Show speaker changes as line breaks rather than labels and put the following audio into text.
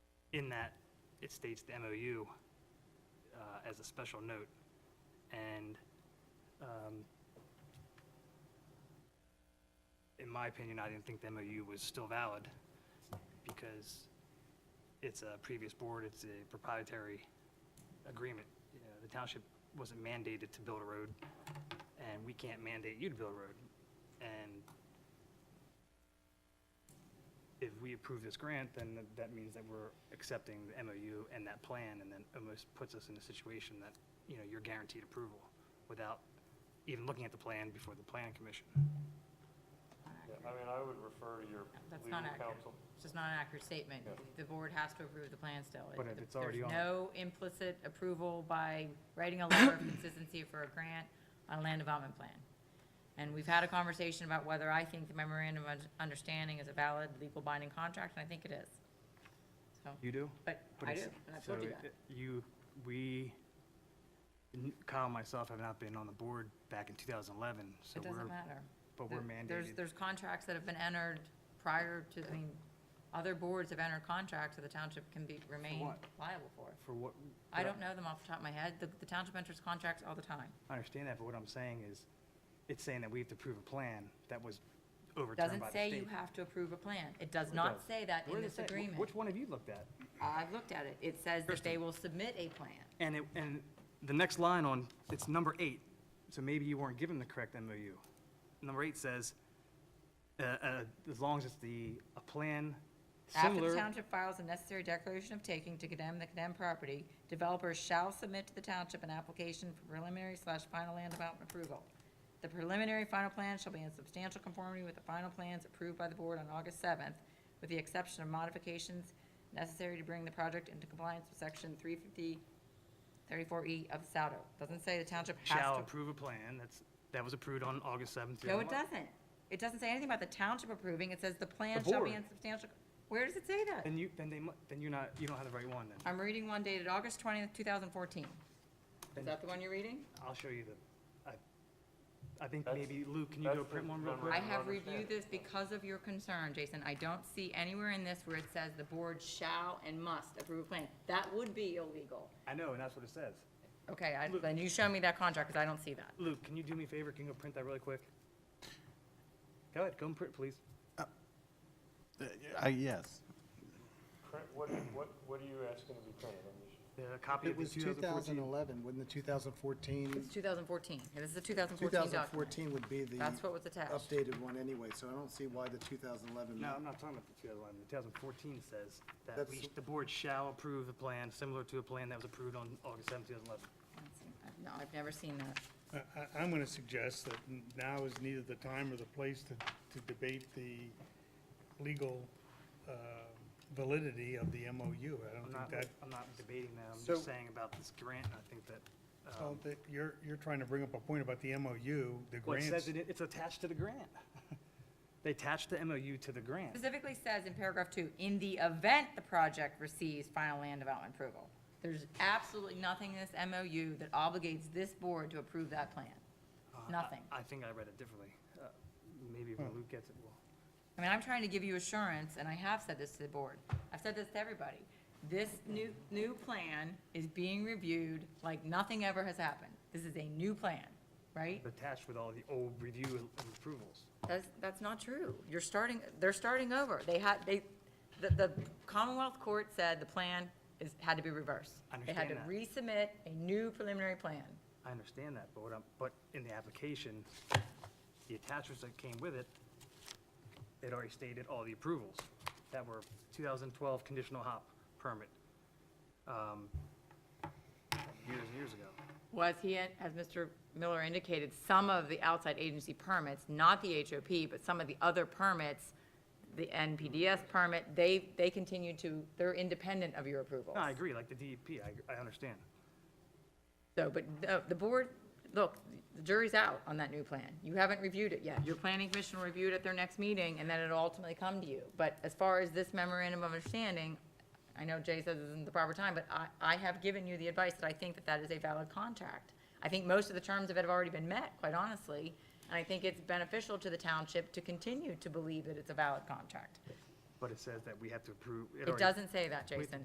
in that, it states the MOU uh, as a special note, and um, in my opinion, I didn't think the MOU was still valid, because it's a previous board, it's a proprietary agreement. You know, The township wasn't mandated to build a road, and we can't mandate you to build a road. And if we approve this grant, then th- that means that we're accepting the MOU and that plan, and then almost puts us in a situation that, you know, you're guaranteed approval without even looking at the plan before the planning commission.
Yeah, I mean, I would refer to your
That's
legal
not accurate.
counsel.
It's just not an accurate statement.
Yeah.
The board has to approve the plan still. It-
But if
the-
it's already on it.
There's no implicit approval by writing a letter of consistency for a grant on a land development plan. And we've had a conversation about whether I think the memorandum of un- understanding is a valid legal binding contract, and I think it is. So,
You do?
but
But
I do,
it's-
and I've told
so
you
it-
that.
You, we, n- Kyle and myself have not been on the board back in 2011, so
It
we're,
doesn't matter.
but we're
There- There's,
mandated.
there's contracts that have been entered prior to, I mean, other boards have entered contracts that the township can be, remain
what?
liable for.
For what?
I
but
don't know them off the top of my head. The, the township enters contracts all the time.
I understand that, but what I'm saying is, it's saying that we have to prove a plan that was overturned
Doesn't
by the
say you
state.
have to approve a plan. It does
It
not
does.
say that
Where
in
does
this
it say? Wh-
agreement.
Which one have you looked at?
I've looked at it. It says that they will submit a plan.
And it, and the next line on, it's number eight, so maybe you weren't given the correct MOU. Number eight says, uh, uh, as long as it's the, a plan
After the
similar.
township files a necessary declaration of taking to condemn the condemned property, developers shall submit to the township an application for preliminary slash final land development approval. The preliminary final plan shall be in substantial conformity with the final plans approved by the board on August seventh, with the exception of modifications necessary to bring the project into compliance with section three fifty, thirty-four E of the SADO. Doesn't say the township has
shall
to.
approve a plan, that's, that was approved on August 7th.
No, it doesn't. It doesn't say anything about the township approving. It says the plan shall be
board.
in substantial. Where does it say that?
Then you, then they, mu- then you're not, you don't have the right one then.
I'm reading one dated August twentieth, two thousand fourteen. Is that the one you're reading?
I'll show you the, I, I think
That's-
maybe, Lou, can you go
that's the
print one real
number.
quick?
I
don't
have
understand.
reviewed this because of your concern, Jason. I don't see anywhere in this where it says the board shall and must approve a plan. That would be illegal.
I know, and that's what it says.
Okay, I, then you show me that contract, because I don't see that.
Luke, can you do me a favor? Can you go print that really quick? Go ahead, go and print, please.
Uh, I, yes.
Cra- What, what, what are you asking to be printed on this?
The copy of
It
the
was
2014.
2011, wouldn't the 2014,
It's two thousand fourteen. This is a two thousand fourteen document.
2014 would be the
That's what was attached.
updated one anyway, so I don't see why the 2011.
No, I'm not talking about the 2011. The 2014 says that
That's-
we, the board shall approve a plan similar to a plan that was approved on August 7th, 2011.
No, I've never seen that.
I, I- I'm going to suggest that n- now is neither the time or the place to, to debate the legal uh, validity of the MOU. I
I'm
don't
not,
think that,
I'm not debating that. I'm
So-
just saying about this grant, and I think that, um,
well, that you're, you're trying to bring up a point about the MOU, the
Well, it says
grants.
it, it's attached to the grant. They attached the MOU to the grant.
Specifically says in paragraph two, in the event the project receives final land development approval. There's absolutely nothing in this MOU that obligates this board to approve that plan. Nothing.
Uh, I think I read it differently. Uh, Maybe
Hmm.
when Luke gets it, well,
I mean, I'm trying to give you assurance, and I have said this to the board. I've said this to everybody. This new, new plan is being reviewed like nothing ever has happened. This is a new plan, right?
attached with all the old review and and approvals.
That's, that's not true. You're starting, they're starting over. They had, they, the, the Commonwealth Court said the plan is, had to be reversed.
I
They
understand
had to resubmit a new preliminary plan.
I understand that, but what I'm, but in the application, the attachments that came with it, it already stated all the approvals that were 2012 conditional hop permit, um, years and years ago.
Was he, as Mr. Miller indicated, some of the outside agency permits, not the HOP, but some of the other permits, the NPDS permit, they, they continue to, they're independent of your approval.
No, I agree, like the DEP, I, I understand.
So, but the, the board, look, the jury's out on that new plan. You haven't reviewed it yet. Your planning commission will review it at their next meeting, and then it'll ultimately come to you. But as far as this memorandum of understanding, I know Jay says this isn't the proper time, but I, I have given you the advice that I think that that is a valid contract. I think most of the terms of it have already been met, quite honestly, and I think it's beneficial to the township to continue to believe that it's a valid contract.
But it says that we have to approve.
It
already-
doesn't say that,
Wait,
Jason.